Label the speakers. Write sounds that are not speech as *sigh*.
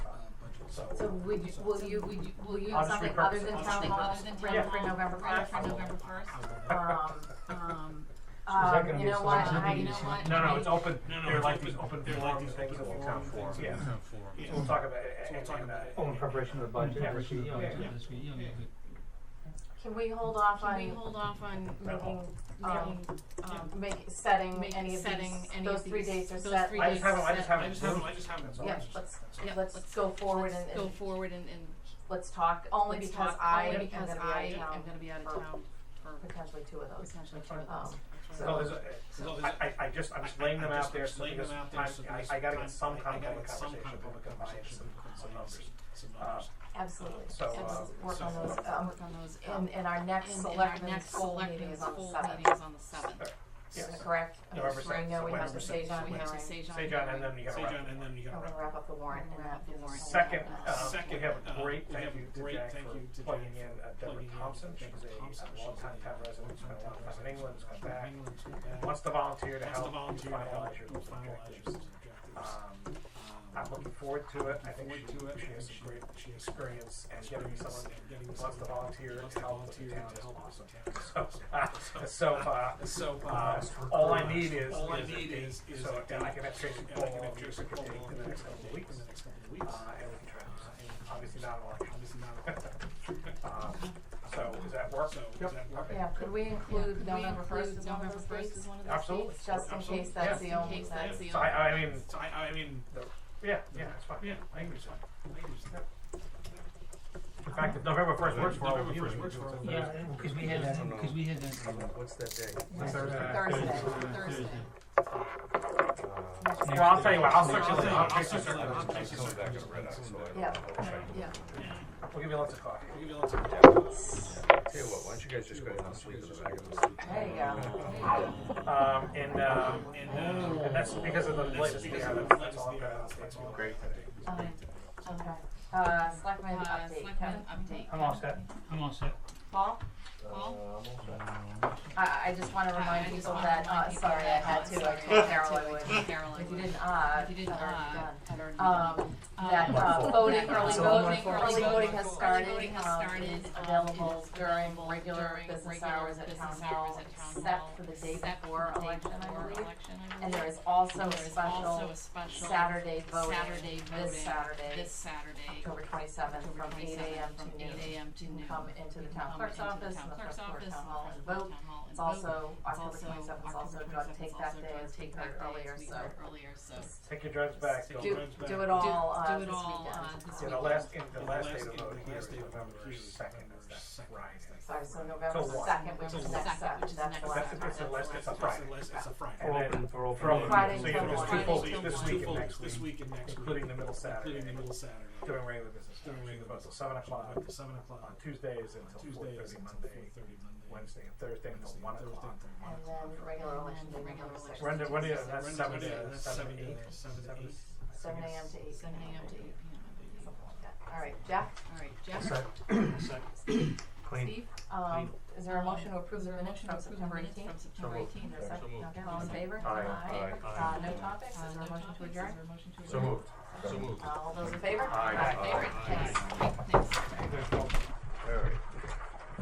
Speaker 1: so.
Speaker 2: So would you, will you, would you, will you
Speaker 1: I'll
Speaker 2: use
Speaker 1: just
Speaker 2: something
Speaker 1: repurpose
Speaker 2: other
Speaker 1: it.
Speaker 2: than
Speaker 1: I'll just
Speaker 2: town
Speaker 3: Something
Speaker 2: hall,
Speaker 3: other than
Speaker 2: ready
Speaker 3: town
Speaker 2: for
Speaker 3: hall,
Speaker 2: November
Speaker 3: ready
Speaker 2: first?
Speaker 3: for November first.
Speaker 2: Um, um,
Speaker 4: that
Speaker 2: um,
Speaker 4: gonna
Speaker 2: you
Speaker 4: be
Speaker 2: know
Speaker 4: a
Speaker 2: what,
Speaker 4: subject?
Speaker 2: I, you know what?
Speaker 1: No, no, it's
Speaker 2: I-
Speaker 1: open,
Speaker 5: No, no,
Speaker 1: they're
Speaker 5: it's
Speaker 1: like
Speaker 5: open.
Speaker 1: these open,
Speaker 5: They're
Speaker 1: they're
Speaker 5: like
Speaker 1: like
Speaker 5: these
Speaker 1: things that
Speaker 5: open
Speaker 1: will
Speaker 5: forum
Speaker 1: count for,
Speaker 5: things.
Speaker 1: yeah.
Speaker 5: Town
Speaker 1: So
Speaker 5: forum.
Speaker 1: We'll talk about it,
Speaker 5: So
Speaker 1: we'll talk about it.
Speaker 4: Oh, in preparation of the budget.
Speaker 1: Yeah.
Speaker 4: this year,
Speaker 1: Yeah.
Speaker 4: yeah, this year, yeah,
Speaker 3: Yeah.
Speaker 4: good.
Speaker 2: Can we hold off
Speaker 3: Can we
Speaker 2: on
Speaker 3: hold off on
Speaker 2: making,
Speaker 3: making,
Speaker 2: um,
Speaker 3: making, um,
Speaker 2: um, make, setting
Speaker 3: Make-
Speaker 2: any of
Speaker 3: setting
Speaker 2: these,
Speaker 3: any
Speaker 2: those
Speaker 3: of
Speaker 2: three
Speaker 3: these-
Speaker 2: dates are
Speaker 3: those
Speaker 2: set?
Speaker 3: three
Speaker 1: I just haven't, I just haven't.
Speaker 3: I just haven't-
Speaker 5: I just haven't.
Speaker 1: That's all.
Speaker 2: Yeah, let's,
Speaker 3: Yeah,
Speaker 2: let's
Speaker 3: let's-
Speaker 2: go forward and,
Speaker 3: let's go
Speaker 2: and
Speaker 3: forward and, and
Speaker 2: let's talk, only
Speaker 3: let's
Speaker 2: because
Speaker 3: talk,
Speaker 2: I
Speaker 3: only
Speaker 2: am
Speaker 3: because
Speaker 2: gonna
Speaker 3: I
Speaker 2: be out
Speaker 3: am
Speaker 2: of
Speaker 3: gonna
Speaker 2: town
Speaker 3: be out of
Speaker 2: for
Speaker 3: town for
Speaker 2: potentially two of those.
Speaker 3: potentially two
Speaker 1: fine.
Speaker 3: of those.
Speaker 2: Um,
Speaker 3: That's
Speaker 2: so-
Speaker 1: No,
Speaker 3: right.
Speaker 1: there's, a-
Speaker 5: So
Speaker 1: I,
Speaker 5: there's a-
Speaker 1: I, I just, I'm just laying them out there, so because time, I, I gotta get some kind of public conversation, public compliance, some, some numbers. Uh,
Speaker 2: Absolutely.
Speaker 1: So,
Speaker 2: Let's
Speaker 1: uh,
Speaker 2: Work on
Speaker 3: so-
Speaker 2: those, um,
Speaker 3: Work on those, um,
Speaker 2: and, and our next
Speaker 3: and- and our
Speaker 2: selectmen's
Speaker 3: next
Speaker 2: full meeting
Speaker 3: selectmen's
Speaker 2: is on the
Speaker 3: full
Speaker 2: seventh.
Speaker 3: meeting is on the seventh.
Speaker 1: Yes.
Speaker 2: Correct?
Speaker 1: November
Speaker 2: Just so I
Speaker 1: seventh,
Speaker 2: know we have
Speaker 1: November
Speaker 2: the
Speaker 1: seventh.
Speaker 2: stage on
Speaker 3: We
Speaker 2: hearing.
Speaker 3: have the Sajon
Speaker 1: Say John, and
Speaker 3: hearing.
Speaker 1: then you gotta
Speaker 5: Say,
Speaker 1: wrap.
Speaker 5: John, and then you
Speaker 2: I'm
Speaker 5: gotta
Speaker 2: gonna
Speaker 5: wrap.
Speaker 2: wrap up the warrant and
Speaker 3: Wrap
Speaker 2: that
Speaker 3: up the
Speaker 2: gives
Speaker 3: warrant.
Speaker 2: us. a
Speaker 1: Second,
Speaker 2: lot.
Speaker 1: uh,
Speaker 5: Second,
Speaker 1: we have a
Speaker 5: uh,
Speaker 1: great
Speaker 5: we
Speaker 1: thank
Speaker 5: have a
Speaker 1: you to
Speaker 5: great
Speaker 1: Jack
Speaker 5: thank
Speaker 1: for
Speaker 5: you to
Speaker 1: plugging
Speaker 5: Jack
Speaker 1: in
Speaker 5: for
Speaker 1: uh, Deborah
Speaker 5: plugging in
Speaker 1: Thompson. She's
Speaker 5: Deborah Thompson.
Speaker 1: a
Speaker 5: She's a
Speaker 1: longtime town resident, spent a lot of time in England, has come back,
Speaker 5: England, it's not bad.
Speaker 1: wants to volunteer to
Speaker 5: Wants to
Speaker 1: help
Speaker 5: volunteer to help
Speaker 1: finalize your
Speaker 5: you
Speaker 1: list of
Speaker 5: finalize your list
Speaker 1: objectives.
Speaker 5: of objectives.
Speaker 1: Um,
Speaker 5: Um,
Speaker 1: I'm looking forward to it. I think
Speaker 5: Forward
Speaker 1: she,
Speaker 5: to it.
Speaker 1: she has some great she has experience and getting someone
Speaker 5: Getting
Speaker 1: who wants to
Speaker 5: someone
Speaker 1: volunteer
Speaker 5: who wants
Speaker 1: to
Speaker 5: to
Speaker 1: help with the
Speaker 5: volunteer
Speaker 1: town
Speaker 5: to
Speaker 1: is
Speaker 5: help with
Speaker 1: awesome.
Speaker 5: the town
Speaker 1: So,
Speaker 5: is
Speaker 1: uh, so, uh,
Speaker 5: So, uh,
Speaker 1: uh, all I need is,
Speaker 5: all I
Speaker 1: is a
Speaker 5: need
Speaker 1: date.
Speaker 5: is, is
Speaker 1: so
Speaker 5: a date.
Speaker 1: I can have Tracy
Speaker 5: And
Speaker 1: Cole
Speaker 5: I can have
Speaker 1: on
Speaker 5: Jason
Speaker 1: the
Speaker 5: Cole
Speaker 1: date
Speaker 5: on
Speaker 1: in the next couple of weeks.
Speaker 5: in the next couple of
Speaker 1: Uh,
Speaker 5: weeks.
Speaker 1: and we can try.
Speaker 5: Uh, and
Speaker 1: Obviously not an election. *laughs*
Speaker 5: Obviously not. *laughs*
Speaker 1: Um, so does that work?
Speaker 5: So, does
Speaker 1: Yep.
Speaker 5: that work?
Speaker 1: Okay.
Speaker 2: Yeah, could we
Speaker 3: Could
Speaker 2: include
Speaker 3: we
Speaker 2: November first
Speaker 3: include
Speaker 2: as one of
Speaker 3: November
Speaker 2: those
Speaker 3: 1st
Speaker 2: dates?
Speaker 3: as one of those
Speaker 1: Absolutely.
Speaker 3: dates?
Speaker 2: Just in
Speaker 5: Absolutely.
Speaker 2: case that's
Speaker 3: Just
Speaker 2: the
Speaker 3: in
Speaker 2: only,
Speaker 3: case
Speaker 2: that's
Speaker 3: that's the
Speaker 1: So I, I mean,
Speaker 5: So I, I mean,
Speaker 1: the, yeah, yeah, it's fine.
Speaker 5: yeah,
Speaker 1: I think it's fine.
Speaker 5: ladies,
Speaker 1: In fact, if November first works for all of
Speaker 5: November
Speaker 1: you.
Speaker 5: 1st
Speaker 1: we
Speaker 5: works
Speaker 1: can
Speaker 5: for
Speaker 1: do it.
Speaker 5: all of
Speaker 4: Yeah, because we had that, because we had that.
Speaker 6: What's that day?
Speaker 1: Thursday.
Speaker 2: Thursday.
Speaker 3: Thursday.
Speaker 6: Uh,
Speaker 1: Well, I'll tell you what, I'll
Speaker 5: I'll
Speaker 1: circulate,
Speaker 5: tell you
Speaker 1: I'll
Speaker 5: what, I'll
Speaker 1: take this,
Speaker 5: circulate, I'll take
Speaker 6: It's coming back as red eye, so I don't know.
Speaker 2: Yeah.
Speaker 6: I'll check.
Speaker 3: Yeah.
Speaker 1: we'll give you lots of coffee.
Speaker 5: We'll give you lots of
Speaker 6: Tell you what, why don't you guys just go down and sleep in the back of the
Speaker 2: There you go.
Speaker 1: Um, and, uh,
Speaker 5: And, uh,
Speaker 1: and that's because of the latest
Speaker 5: because
Speaker 1: VR,
Speaker 5: of the
Speaker 1: that's, that's
Speaker 5: latest
Speaker 1: all I've
Speaker 5: VR,
Speaker 1: got on the
Speaker 5: that's
Speaker 1: stage.
Speaker 5: all.
Speaker 1: Great.
Speaker 2: Um, okay. Uh, selectmen
Speaker 3: Uh,
Speaker 2: update.
Speaker 3: Selectmen
Speaker 2: Kevin?
Speaker 3: update.
Speaker 1: I'm all set.
Speaker 4: I'm all set.
Speaker 2: Paul?
Speaker 3: Paul?
Speaker 2: I, I just wanna
Speaker 3: I- I
Speaker 2: remind
Speaker 3: just
Speaker 2: people
Speaker 3: wanna
Speaker 2: that, uh,
Speaker 3: remind people
Speaker 2: sorry, I
Speaker 3: that,
Speaker 2: had
Speaker 3: uh,
Speaker 2: to, I
Speaker 3: sorry, I
Speaker 2: told
Speaker 3: had to,
Speaker 2: Carolyn
Speaker 3: I
Speaker 2: would.
Speaker 3: told Carolyn
Speaker 2: If you
Speaker 3: would.
Speaker 2: didn't, uh,
Speaker 3: If you didn't,
Speaker 2: I'd already
Speaker 3: uh,
Speaker 2: done.
Speaker 3: had already done.
Speaker 2: Um, that, uh,
Speaker 3: Um,
Speaker 2: voting,
Speaker 3: that, uh,
Speaker 2: early voting,
Speaker 3: voting, early
Speaker 2: early voting
Speaker 3: voting
Speaker 2: has
Speaker 3: early
Speaker 2: started,
Speaker 3: voting has
Speaker 2: um,
Speaker 3: started,
Speaker 2: is
Speaker 3: um,
Speaker 2: available
Speaker 3: is
Speaker 2: during
Speaker 3: available
Speaker 2: regular
Speaker 3: during
Speaker 2: business
Speaker 3: regular
Speaker 2: hours at town
Speaker 3: business hours
Speaker 2: hall,
Speaker 3: at town hall,
Speaker 2: except for the day
Speaker 3: except
Speaker 2: before
Speaker 3: for the day
Speaker 2: election, I
Speaker 3: before
Speaker 2: believe.
Speaker 3: election, I
Speaker 2: And there
Speaker 3: believe.
Speaker 2: is also a
Speaker 3: There is also
Speaker 2: special
Speaker 3: a special
Speaker 2: Saturday voting
Speaker 3: Saturday
Speaker 2: this
Speaker 3: voting
Speaker 2: Saturday,
Speaker 3: this Saturday,
Speaker 2: October twenty-seventh, from
Speaker 3: October
Speaker 2: eight
Speaker 3: 27th,
Speaker 2: AM
Speaker 3: from
Speaker 2: to noon.
Speaker 3: 8 a.m. to
Speaker 2: You can
Speaker 3: noon.
Speaker 2: come into
Speaker 3: You
Speaker 2: the
Speaker 3: can
Speaker 2: town
Speaker 3: come
Speaker 2: clerk's
Speaker 3: into the
Speaker 2: office
Speaker 3: town
Speaker 2: and the first
Speaker 3: clerk's
Speaker 2: floor
Speaker 3: office
Speaker 2: town
Speaker 3: and the
Speaker 2: hall
Speaker 3: first
Speaker 2: and
Speaker 3: floor
Speaker 2: vote.
Speaker 3: town hall and
Speaker 2: It's
Speaker 3: vote.
Speaker 2: also,
Speaker 3: It's
Speaker 2: October
Speaker 3: also
Speaker 2: twenty-seventh is
Speaker 3: October
Speaker 2: also drug
Speaker 3: 27th
Speaker 2: take
Speaker 3: is
Speaker 2: that
Speaker 3: also
Speaker 2: day,
Speaker 3: drug
Speaker 2: as we
Speaker 3: take
Speaker 2: heard
Speaker 3: that day,
Speaker 2: earlier,
Speaker 3: as we
Speaker 2: so.
Speaker 3: heard earlier, so.
Speaker 1: Take your drugs back.
Speaker 5: Take
Speaker 2: Do,
Speaker 5: your drugs back.
Speaker 2: do it all,
Speaker 3: Do-
Speaker 2: uh,
Speaker 3: do it
Speaker 2: this
Speaker 3: all,
Speaker 2: weekend.
Speaker 3: uh, this
Speaker 1: Yeah,
Speaker 3: weekend.
Speaker 1: the last, and the
Speaker 5: The last
Speaker 1: last
Speaker 5: in-
Speaker 1: day of voting
Speaker 5: the last
Speaker 1: here is
Speaker 5: day of
Speaker 1: November
Speaker 5: voting here is
Speaker 1: second,
Speaker 5: November
Speaker 1: is that
Speaker 5: second.
Speaker 1: Friday?
Speaker 2: Sorry, so November
Speaker 1: So what?
Speaker 2: second, which
Speaker 3: So
Speaker 2: is
Speaker 3: what?
Speaker 2: next
Speaker 3: Second,
Speaker 2: Saturday,
Speaker 3: which is
Speaker 2: that's
Speaker 3: next
Speaker 2: the
Speaker 1: That's,
Speaker 2: last
Speaker 3: Saturday.
Speaker 1: it's
Speaker 2: time.
Speaker 1: the last, it's a Friday.
Speaker 5: It's a- it's a Friday.
Speaker 4: We're open for all.
Speaker 1: For all
Speaker 2: Friday
Speaker 1: of you, so you
Speaker 2: till
Speaker 1: have just two
Speaker 2: Friday
Speaker 1: full,
Speaker 3: till
Speaker 1: this
Speaker 3: Friday.
Speaker 1: week
Speaker 5: full
Speaker 1: and
Speaker 5: weeks
Speaker 1: next
Speaker 5: this
Speaker 1: week,
Speaker 5: week and next week.
Speaker 1: including the middle
Speaker 5: Including the
Speaker 1: Saturday,
Speaker 5: middle Saturday.
Speaker 1: during regular business,
Speaker 5: During
Speaker 1: during the
Speaker 5: regular
Speaker 1: votes till
Speaker 5: business.
Speaker 1: seven o'clock,
Speaker 5: Up to Seven
Speaker 1: on
Speaker 5: o'clock.
Speaker 1: Tuesdays until four
Speaker 5: Tuesday is
Speaker 1: thirty
Speaker 5: until
Speaker 1: Monday,
Speaker 5: 4:30 Monday.
Speaker 1: Wednesday and Thursday until
Speaker 5: Wednesday,
Speaker 1: one
Speaker 5: Thursday
Speaker 1: o'clock.
Speaker 5: until one
Speaker 2: And
Speaker 5: o'clock.
Speaker 2: then regular
Speaker 3: And
Speaker 2: election day,
Speaker 3: then
Speaker 2: November
Speaker 3: regular
Speaker 2: sixth.
Speaker 1: When,
Speaker 3: election
Speaker 1: do- when is, that's
Speaker 5: Wednesday,
Speaker 1: seven
Speaker 5: Wednesday,
Speaker 1: to,
Speaker 5: that's
Speaker 1: seven to
Speaker 5: seven
Speaker 1: eight?
Speaker 5: to- seven to
Speaker 1: Seven
Speaker 5: eight.
Speaker 2: Seven AM to eight.
Speaker 3: Seven AM to eight PM, I believe.
Speaker 2: Something like that. All right, Jeff,
Speaker 3: All right, Jeff?
Speaker 5: Second.
Speaker 4: Clean.
Speaker 3: Steve?
Speaker 2: um, is there a
Speaker 3: Um,
Speaker 2: motion to approve
Speaker 3: Is
Speaker 2: the
Speaker 3: there a
Speaker 2: minutes
Speaker 3: motion
Speaker 2: from
Speaker 3: to approve the
Speaker 2: September
Speaker 3: minutes
Speaker 2: eighteenth?
Speaker 3: from September eighteenth?
Speaker 2: There's a
Speaker 6: So
Speaker 2: second,
Speaker 6: moved.
Speaker 2: okay, all in favor?
Speaker 6: Aye. Aye.
Speaker 2: Uh, no topics, is there a motion to adjourn?
Speaker 6: So moved. So moved.
Speaker 2: All those in favor?
Speaker 6: Aye.
Speaker 2: All in favor?
Speaker 6: Aye.
Speaker 2: Thanks.
Speaker 3: Thanks.
Speaker 6: All right.